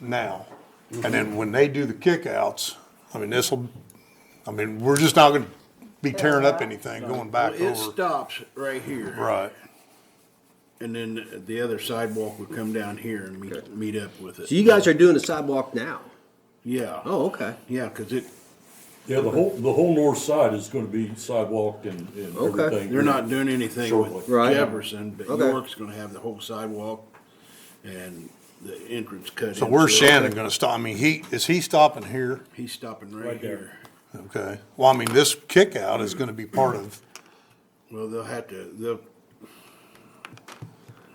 now. And then when they do the kickouts, I mean, this'll, I mean, we're just not gonna be tearing up anything going back It over. stops right here. Right, And then the other sidewalk would come down here and meet, meet up with it. So you guys are doing the sidewalk now? Yeah. Oh, okay. Uh-huh. Yeah, cause it, Yeah, the whole, the whole north side is gonna be sidewalked and, and Okay. everything. they're not doing anything with Shortly. Right. Jefferson, but Okay. York's gonna have the whole sidewalk and the entrance cut in. so where's it- Shannon gonna stop? I mean, he, is he stopping here? He's stopping right Right there. here. Okay, well, I mean, this kickout is gonna be part of, Well, they'll have to, they'll,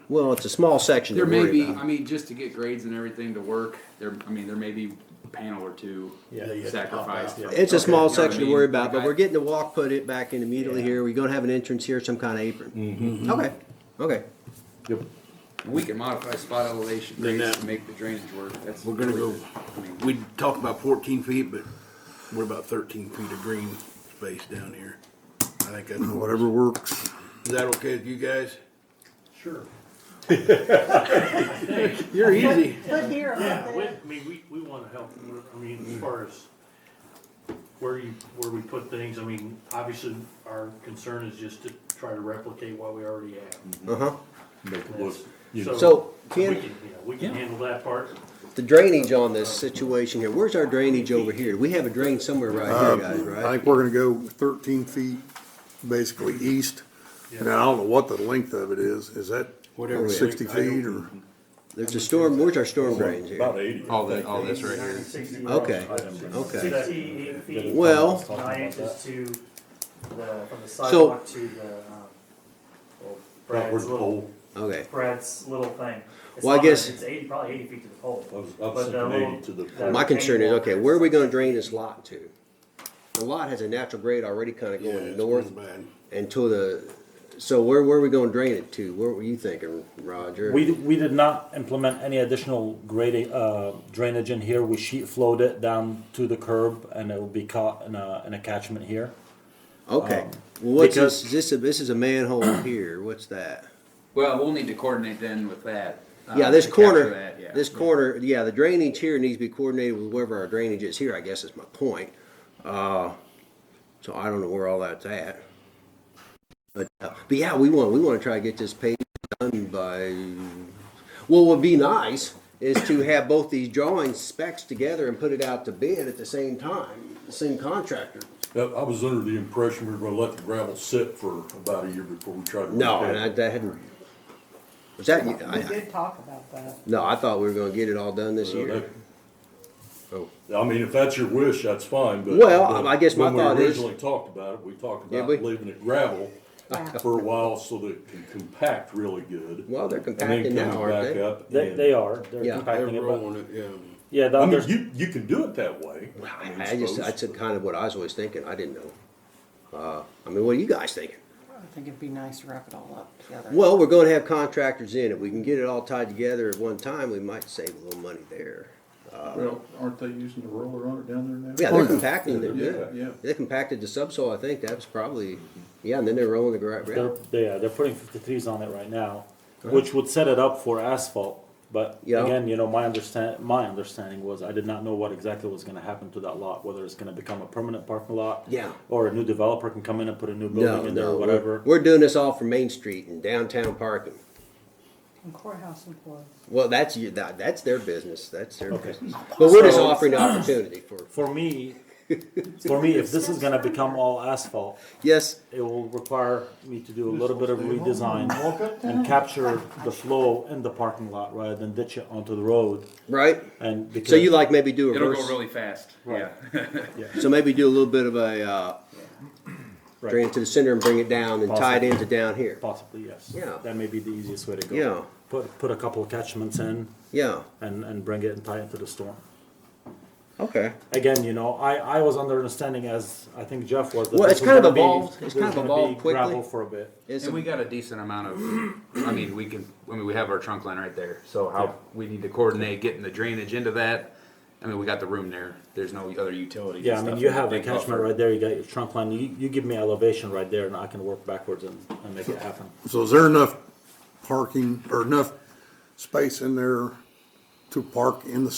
Well, it's a small section to There may worry be, about. I mean, just to get grades and everything to work, there, I mean, there may be a panel or two sacrificed. for- It's a okay, small you know what I section to mean? worry about, Like but I- we're getting the walk put it back in immediately here. We're gonna have an entrance here, some kind of apron. Okay, okay. Yep. We can modify spot elevation Then grades that- to make the drainage work, that's. we're gonna really- go, I mean, we talked about fourteen feet, but what about thirteen feet of green space down here? I think that's. whatever works. Is that okay with you guys? Sure. You're easy. Put here, or Yeah, put we, I there. mean, we, we wanna help, We're- I mean, as far as where you, where we put things, I mean, obviously, our concern is just to try to replicate what we already have. Uh-huh. Make it look, That's- you know, So, We Ken- can, yeah, we can handle that part. The drainage on this situation here, where's our drainage over here? We have a drain somewhere right here, guys, I right? think we're gonna go thirteen feet, basically east, and I don't know what the length of it is, is that Whatever. sixty feet or? There's a storm, where's our storm drains here? about eighty. All that, all this right here. Okay, okay. Sixty-eight feet. Well- Nine inches to the, from the sidewalk to the, um, well, Right, where's Brad's the little, pole? Okay, Brad's little thing. It's Well, I not much, guess- It's eighty, probably eighty feet to the pole. I was, I But was the thinking little- eighty to that- the. my concern is, okay, where are we gonna drain this lot to? The lot has a natural grade already kinda Yeah, going it's north going bad. until the, so where, where are we gonna drain it to? Where were you thinking, Roger? We, we did not implement any additional grade, uh, drainage in here. We sheet flowed it down to the curb and it will be caught in a, in a catchment here. Okay, Um, well, what's because- this, is this, a- this is a manhole here, what's that? Well, we'll need to coordinate then with that. uh, Yeah, this to capture corner, that, yeah. this corner, yeah, the drainage here needs to be coordinated with wherever our drainage is here, I guess is my point. Uh, so I don't know where all that's at. But, uh, but yeah, we want, we wanna try to get this paved done by, well, what'd be nice is to have both these drawing specs together and put it out to bid at the same time, same contractor. That- I was under the impression we were gonna let the gravel sit for about a year before we tried to. No, repair it. and I, that hadn't, was that, We I, I, did talk about that. no, I thought we were gonna get it all done this So year. that- Oh. Uh, I mean, if that's your wish, that's fine, but. Well, but I guess my when we thought is- Originally talked about it, we talked Did about we? leaving it gravel Yeah. for a while so that it can compact really good. Well, they're and then compacting now, come aren't back they? up They, and- they are, they're Yeah. They're compacting it, but, rolling it, yeah. yeah, the I mean, others- you, you can do it that way. I I just, that's kind of what I was always thinking, I didn't know. Uh, I mean, what are you guys thinking? I think it'd be nice to wrap it all up together. Well, we're gonna have contractors in, if we can get it all tied together at one time, we might save a little money there. Well, aren't they using the roller on it down there now? Yeah, they're compacting, they're good. Yeah, yeah. They compacted the subsoil, I think, that was probably, yeah, and then they're rolling the gra- they're, gravel. yeah, they're putting fifty-threes on it right now, which would set it up for asphalt. But Yeah. again, you know, my understand, my understanding was, I did not know what exactly was gonna happen to that lot, whether it's gonna become a permanent parking lot. Yeah. Or a new developer can come in and put a new No, building in there no, or we're, whatever. we're doing this all for Main Street and downtown parking. And courthouse employees. Well, that's, you- that, that's their business, that's their Okay. business. But we're just So- offering the opportunity for, For me, for me, if this is gonna become all asphalt, yes, it will require me to do a little bit of redesign and capture the flow in the parking lot rather than ditch it onto the road right? and because. So you like maybe do a It'll reverse? go really fast, yeah. So maybe do a little bit of a, uh, Right. drain it to the center and bring it down and tie it into down here. Possibly, yes. Yeah. That may be the easiest way to go. Yeah. Put, put a couple of catchments in Yeah, and, and bring it and tie it to the storm. okay. Again, you know, I, I was under understanding as, I think Jeff was. that Well, this it's was kind of gonna be- evolved- it's there's kind of gonna be evolved quickly. Gravel for a bit. It's And we got a decent amount of, I mean, we can, I mean, we have our trunk line right there, so how, we need to coordinate getting the drainage into that. I mean, we got the room there, there's no other utilities. Yeah, I and mean, stuff you in the have a big catchment buffer. right there, you got your trunk line, you, you give me elevation right there and I can work backwards and, and make it happen. So is there enough parking or enough space in there to park in the